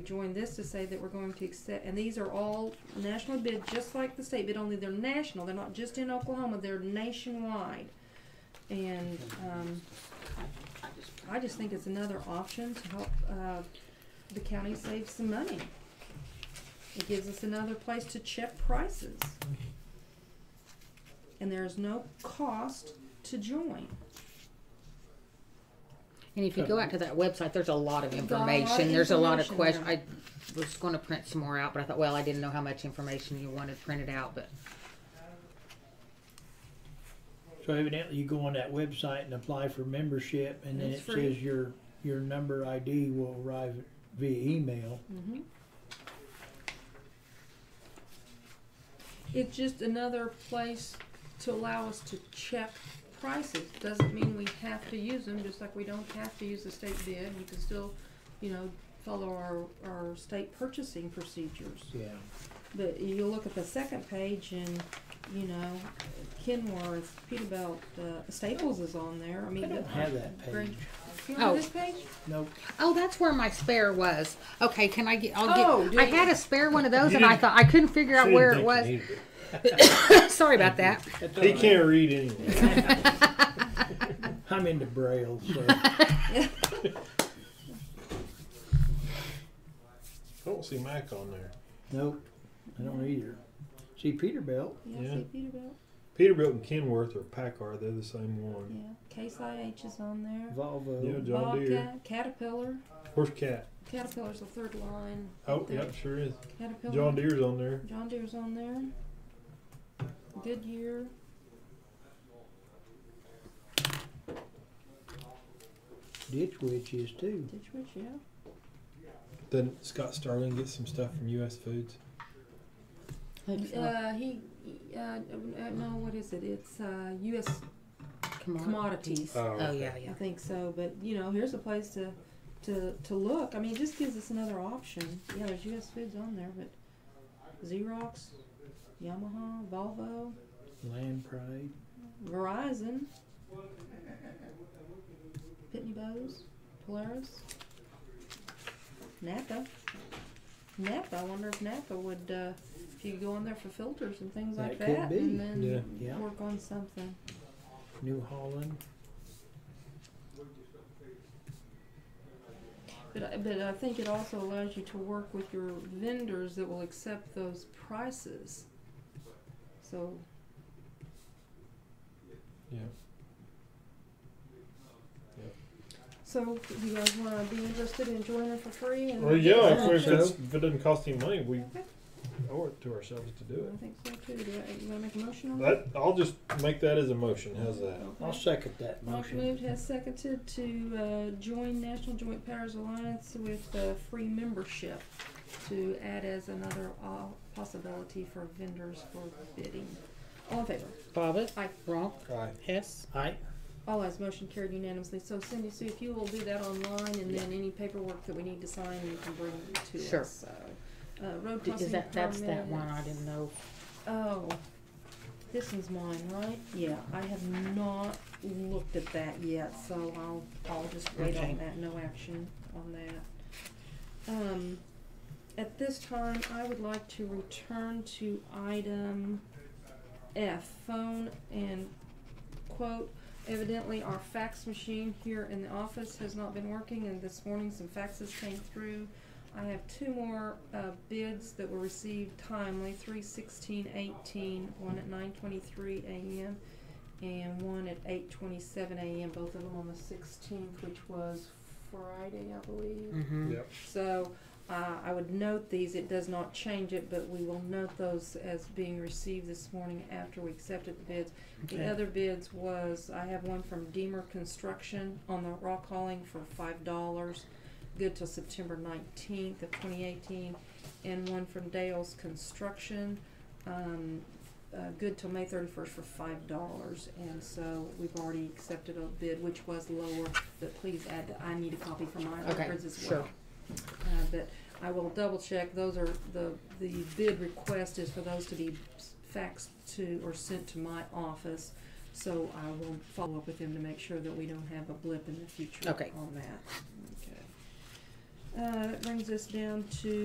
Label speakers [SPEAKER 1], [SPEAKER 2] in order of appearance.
[SPEAKER 1] join this to say that we're going to accept, and these are all national bid, just like the state bid, only they're national, they're not just in Oklahoma, they're nationwide. And, um, I just think it's another option to help, uh, the county save some money. It gives us another place to check prices. And there is no cost to join.
[SPEAKER 2] And if you go out to that website, there's a lot of
[SPEAKER 1] There's a lot of
[SPEAKER 2] information. There's a lot of
[SPEAKER 1] information
[SPEAKER 2] questions. I was going to print some more out, but I thought, well, I didn't know how much information you wanted printed out, but
[SPEAKER 3] So evidently you go on that website and apply for membership and then
[SPEAKER 1] It's
[SPEAKER 3] it
[SPEAKER 1] free.
[SPEAKER 3] says your, your number ID will arrive via email.
[SPEAKER 1] Mhm. It's just another place to allow us to check prices. Doesn't mean we have to use them, just like we don't have to use the state bid. We can still, you know, follow our, our state purchasing procedures.
[SPEAKER 3] Yeah.
[SPEAKER 1] But you look at the second page and, you know, Kenworth, Peterbilt, uh, Staples is on there. I mean.
[SPEAKER 3] I don't have that page.
[SPEAKER 1] You don't have
[SPEAKER 2] Oh.
[SPEAKER 1] this page?
[SPEAKER 3] Nope.
[SPEAKER 2] oh, that's where my spare was. Okay, can I get? I'll
[SPEAKER 1] Oh, do
[SPEAKER 2] get. I
[SPEAKER 1] you-
[SPEAKER 2] had a spare one of those,
[SPEAKER 4] You
[SPEAKER 2] and I
[SPEAKER 4] didn't-
[SPEAKER 2] thought I couldn't figure out
[SPEAKER 4] She
[SPEAKER 2] where it
[SPEAKER 4] didn't
[SPEAKER 2] was.
[SPEAKER 4] think
[SPEAKER 2] Sorry about that.
[SPEAKER 3] That's
[SPEAKER 4] He
[SPEAKER 3] all right.
[SPEAKER 4] can't read anyway.
[SPEAKER 3] I'm into braille, so.
[SPEAKER 4] I don't see Mike on there.
[SPEAKER 3] Nope, I don't either. See Peterbilt,
[SPEAKER 1] Yeah, I
[SPEAKER 4] Yeah.
[SPEAKER 1] see Peterbilt,
[SPEAKER 4] Peterbilt and Kenworth or Packard, they're the same one.
[SPEAKER 1] yeah. Case IH is on there.
[SPEAKER 4] Yeah,
[SPEAKER 3] Volvo,
[SPEAKER 4] John Deere.
[SPEAKER 1] Bobcat, Caterpillar.
[SPEAKER 4] Horse Cat.
[SPEAKER 1] Caterpillar's the third line.
[SPEAKER 4] Oh,
[SPEAKER 1] There.
[SPEAKER 4] yep, sure is.
[SPEAKER 1] Caterpillar.
[SPEAKER 4] John Deere's on there.
[SPEAKER 1] John Deere's on there. Goodyear.
[SPEAKER 3] Ditch Witch is too.
[SPEAKER 1] Ditch Witch, yeah.
[SPEAKER 4] Then Scott Starling gets some stuff from U.S. Foods.
[SPEAKER 1] Uh, he, uh, uh, no, what is it? It's uh, U.S.
[SPEAKER 2] Come on.
[SPEAKER 1] commodities.
[SPEAKER 4] Oh,
[SPEAKER 2] Oh yeah, yeah.
[SPEAKER 1] I think so, but you know, here's a place to, to, to look. I mean, it just gives us another option. Yeah, there's U.S. Foods on there, but Xerox, Yamaha, Volvo,
[SPEAKER 3] Land Pride.
[SPEAKER 1] Verizon, Pitney Bowes, Polaris, Napa. Napa. I wonder if Napa would, uh, if you go in there for filters and things like
[SPEAKER 3] That could
[SPEAKER 1] that,
[SPEAKER 3] be.
[SPEAKER 1] and then
[SPEAKER 4] Yeah.
[SPEAKER 3] Yeah.
[SPEAKER 1] work on something.
[SPEAKER 3] New Holland.
[SPEAKER 1] But I- but I think it also allows you to work with your vendors that will accept those prices. So
[SPEAKER 4] Yeah.
[SPEAKER 1] so do you guys want to be interested in joining for free? And
[SPEAKER 4] Well, yeah, if,
[SPEAKER 3] I
[SPEAKER 4] it's-
[SPEAKER 3] think so.
[SPEAKER 4] if it doesn't cost any money, we
[SPEAKER 1] Okay.
[SPEAKER 4] owe it to ourselves to
[SPEAKER 1] I
[SPEAKER 4] do it.
[SPEAKER 1] think so too. Do I, you want to make a motion on that?
[SPEAKER 4] That, I'll just make that as a motion. How's that?
[SPEAKER 3] I'll second that
[SPEAKER 1] Mark
[SPEAKER 3] motion.
[SPEAKER 1] moved, has seconded to uh, join National Joint Powers Alliance with uh, free membership to add as another uh, possibility for vendors for bidding. All in favor?
[SPEAKER 2] Bobbit.
[SPEAKER 1] Aye.
[SPEAKER 2] Wrong.
[SPEAKER 4] Aye.
[SPEAKER 2] Hess.
[SPEAKER 3] Aye,
[SPEAKER 1] All eyes motion carried unanimously. So Cindy Sue, if you will do that online and then any paperwork that we need to sign, you can bring to
[SPEAKER 2] Sure.
[SPEAKER 1] us. So, uh, road crossing
[SPEAKER 2] Is that that's that one I
[SPEAKER 1] permits.
[SPEAKER 2] didn't know.
[SPEAKER 1] Oh, this one's mine, right? Yeah, I have not looked at that yet, so I'll, I'll just wait
[SPEAKER 2] Okay.
[SPEAKER 1] on that, no action on that. Um, at this time, I would like to return to item F, phone and quote, evidently our fax machine here in the office has not been working and this morning some faxes came through. I have two more uh, bids that were received timely, three sixteen eighteen, one at nine twenty-three AM and one at eight twenty-seven AM, both of them on the sixteenth, which was Friday, I believe.
[SPEAKER 2] Mm-hmm.
[SPEAKER 4] Yep.
[SPEAKER 1] So, uh, I would note these, it does not change it, but we will note those as being received this morning after we accepted the bids. The
[SPEAKER 3] Okay.
[SPEAKER 1] other bids was, I have one from Deemer Construction on the rock hauling for five dollars, good till September nineteenth of twenty eighteen, and one from Dale's Construction, um, uh, good till May thirty-first for five dollars. And so we've already accepted a bid, which was lower, but please add, that I need a copy for my
[SPEAKER 2] Okay,
[SPEAKER 1] records as well.
[SPEAKER 2] sure.
[SPEAKER 1] Uh, but I will double check, those are, the, the bid request is for those to be s- faxed to or sent to my office. So I will follow up with them to make sure that we don't have a blip in the future
[SPEAKER 2] Okay.
[SPEAKER 1] on that. Okay. Uh, that brings us down to